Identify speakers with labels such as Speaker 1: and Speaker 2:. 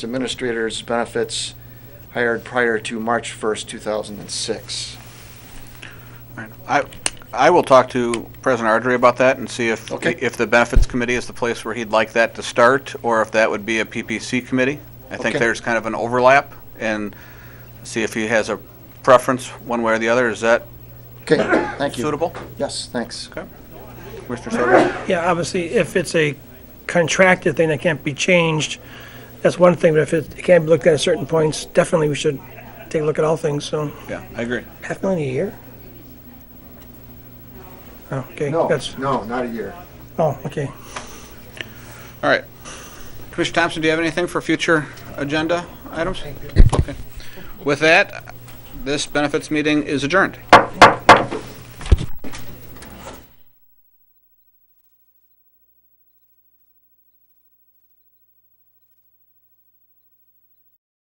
Speaker 1: administrators' benefits hired prior to March 1st, 2006.
Speaker 2: I, I will talk to President Ardrey about that and see if,
Speaker 1: Okay.
Speaker 2: if the Benefits Committee is the place where he'd like that to start, or if that would be a PPC committee. I think
Speaker 1: Okay.
Speaker 2: there's kind of an overlap, and see if he has a preference one way or the other. Is that
Speaker 1: Okay, thank you.
Speaker 2: suitable?
Speaker 1: Yes, thanks.
Speaker 2: Commissioner Soto?
Speaker 3: Yeah, obviously, if it's a contracted thing that can't be changed, that's one thing, but if it it can't be looked at at certain points, definitely we should take a look at all things, so.
Speaker 2: Yeah, I agree.
Speaker 3: Half million a year? Oh, okay,
Speaker 1: No,
Speaker 3: that's,
Speaker 1: no, not a year.
Speaker 3: oh, okay.
Speaker 2: All right. Commissioner Thompson, do you have anything for future agenda items? Okay. With that, this benefits meeting is adjourned.